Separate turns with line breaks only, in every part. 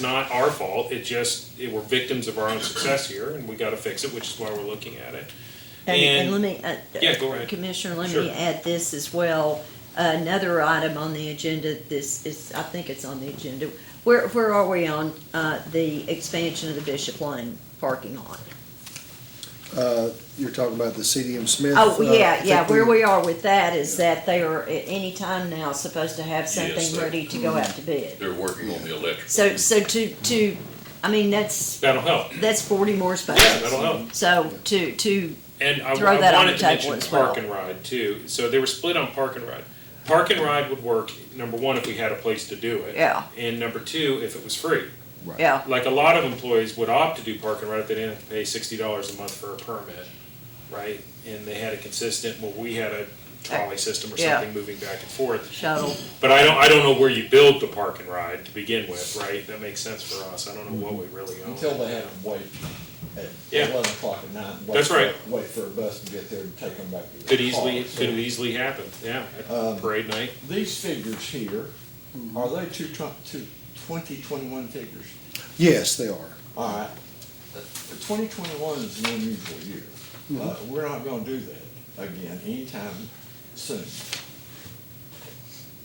not our fault, it just, it- we're victims of our own success here, and we gotta fix it, which is why we're looking at it.
And, and let
And,
me, uh,
Yeah, go ahead.
Commissioner, let
Sure.
me add this as well. Another item on the agenda, this is, I think it's on the agenda. Where, where are we on, uh, the expansion of the Bishop Lane parking lot?
Uh, You're talking about the CDM Smith.
Oh,
uh, I
yeah,
think
yeah, where we are with that is that they are at any time now supposed to have
Yes,
something
they-
ready to go out to
Mm-hmm.
bid.
They're working on the electric.
So, so to, to, I mean, that's,
That'll help,
that's forty more
yeah,
spaces.
that'll help.
So to, to,
And I,
Throw
I
that on
wanted
the
to
table
mention
as
park
well.
and ride too. So they were split on park and ride. Park and ride would work, number one, if we had a place to do it.
Yeah.
And number two, if it was free.
yeah,
Like a lot of employees would opt to do park and ride if they didn't have to pay sixty dollars a month for a permit, right? And they had a consistent, well, we had a trolley system or
Yeah.
something moving back and forth.
shuttle,
But I don't, I don't know where you build the park and ride to begin with, right? That makes sense for us. I don't know what we really own.
Mm-hmm. Until they had to wait at
Yeah.
eleven o'clock at night. and wait
That's
for-
right.
Wait for a bus to get there and take them back to their
Could easily,
car. So Um,
could easily happen, yeah, at parade night.
These figures here, are they two twen- two- 2021 figures?
Yes, they are.
All right, twenty twenty-one is an unusual year. Uh, we're not gonna do that again anytime soon.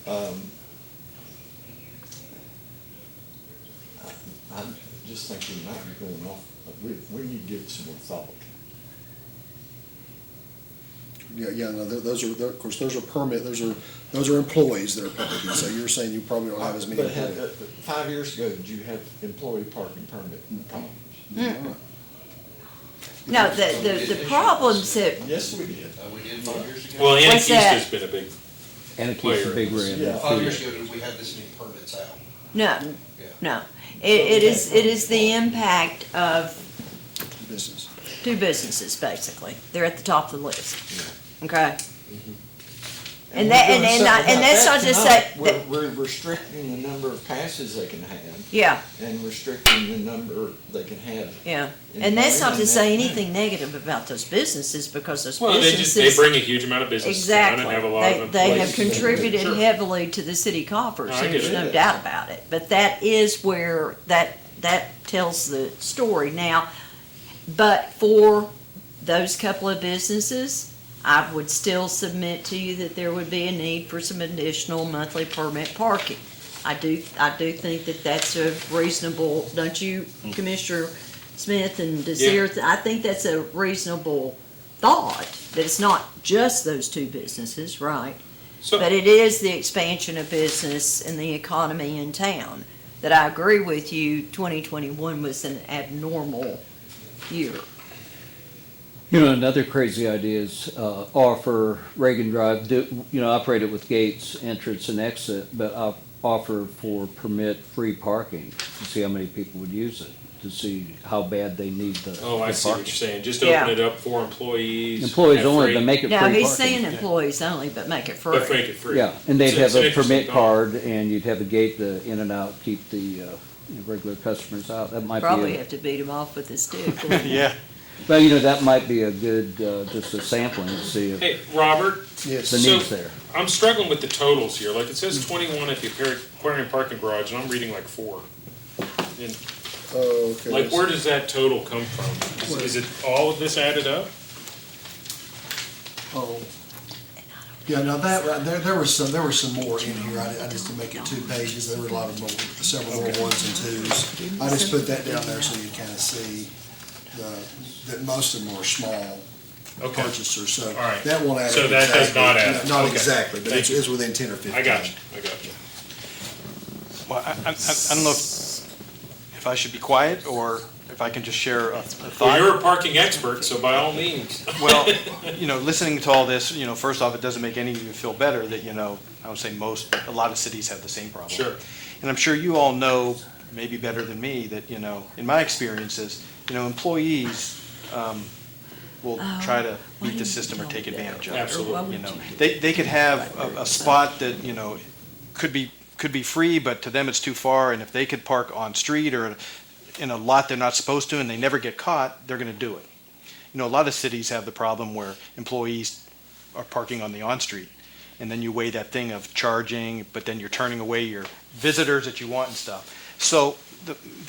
Um, I, I just think we might be going off, we, we need to give it some more thought.
Yeah, yeah, no, tho- those are, tho- of course, those are permit, those are, those are employees that are parking, so you're saying you probably don't have as many.
But had, uh,
employees.
five years ago, did you have employee parking permit problems?
no, the, the, the problems that
Yes, we did.
Uh, we did five years ago.
Well,
What's
Anacostia has been a big,
And it keeps the big rim.
Yeah.
Five years ago, did we have this many permits out?
No,
Yeah.
no. It, it is, it is the impact of
Business.
two businesses, basically. They're at the top of the list. Okay? And that-
we're
and-
doing
and not-
something
and
about
that's
that
not just
tonight.
that-
We're, we're restricting the number of passes they can have
Yeah,
and restricting the number they can have.
yeah. And that's not to say anything negative about those businesses because those
well, they just, they
businesses.
bring a huge amount of business down and
Exactly.
have a lot of
They,
employees.
they have
employees.
contributed
Sure.
heavily to the city coffers,
I
and
get
there's
it.
no doubt about it. But that is where, that, that tells the story. Now, But for those couple of businesses, I would still submit to you that there would be a need for some additional monthly permit parking. I do, I do think that that's a reasonable, don't you, Commissioner Smith and Desir? I think that's a reasonable thought, that it's not just those two businesses, right?
So-
But it is the expansion of business and the economy in town, that I agree with you, 2021 was an abnormal year.
You know, another crazy idea is uh, offer Reagan Drive, do, you know, operate it with gates, entrance and exit, but op- offer for permit free parking to see how many people would use it, to see how bad they need the
Oh, I
the
see what you're
parking.
saying. Just
Yeah.
open it up for employees.
Employees
have
only,
free-
but make it free
No,
parking.
he's saying employees only, but make it free.
But make it free.
Yeah, and they'd
It's-
have
it's an
a
interesting
permit
thought.
card and you'd have a gate to in and out, keep the uh, regular customers out. That might be. a-
Probably have to beat him off with his stick.
Yeah.
Well, you know, that might be a good, uh, just a sampling to see if
Hey, Robert,
Yes.
the
so-
need's there.
I'm struggling with the totals here. Like, it says twenty-one at the aquari- aquarium parking garage, and I'm reading like four. And,
Oh, okay.
Like, where does that total come from? Is- Is it all of this added up?
Oh. Yeah, now that, right there, there was some, there were some more in here, I, I just didn't make it two pages, there were a lot of more, several more ones and twos. I just put that down there so you kind of see the, that most of them are small
Okay.
purchasers, so.
All right.
That won't add.
So
up
that does
exactly.
not add up.
Not
Okay.
exactly, but
Thank
it's, it's within ten or fifteen.
I got you, I got you.
Well, I, I, I I don't know if, if I should be quiet or if I can just share a a
Well,
thought.
you're a parking expert, so by all means.
Well, you know, listening to all this, you know, first off, it doesn't make any of you feel better that, you know, I would say most, but a lot of cities have the same problem.
Sure.
And I'm sure you all know, maybe better than me, that, you know, in my experiences, you know, employees um, will try to
why
beat the
didn't
system
Oh, you
or
tell
take
me that?
advantage of it.
Absolutely.
Why would
You know,
you do
they, they could have a, a spot that, you know, could be, could be free, but to them it's too far, and if they could park on street or in a lot they're not supposed to and they never get caught, they're gonna do it. You know, a lot of cities have the problem where employees are parking on the on-street, and then you weigh that thing of charging, but then you're turning away your visitors that you want and stuff. So the,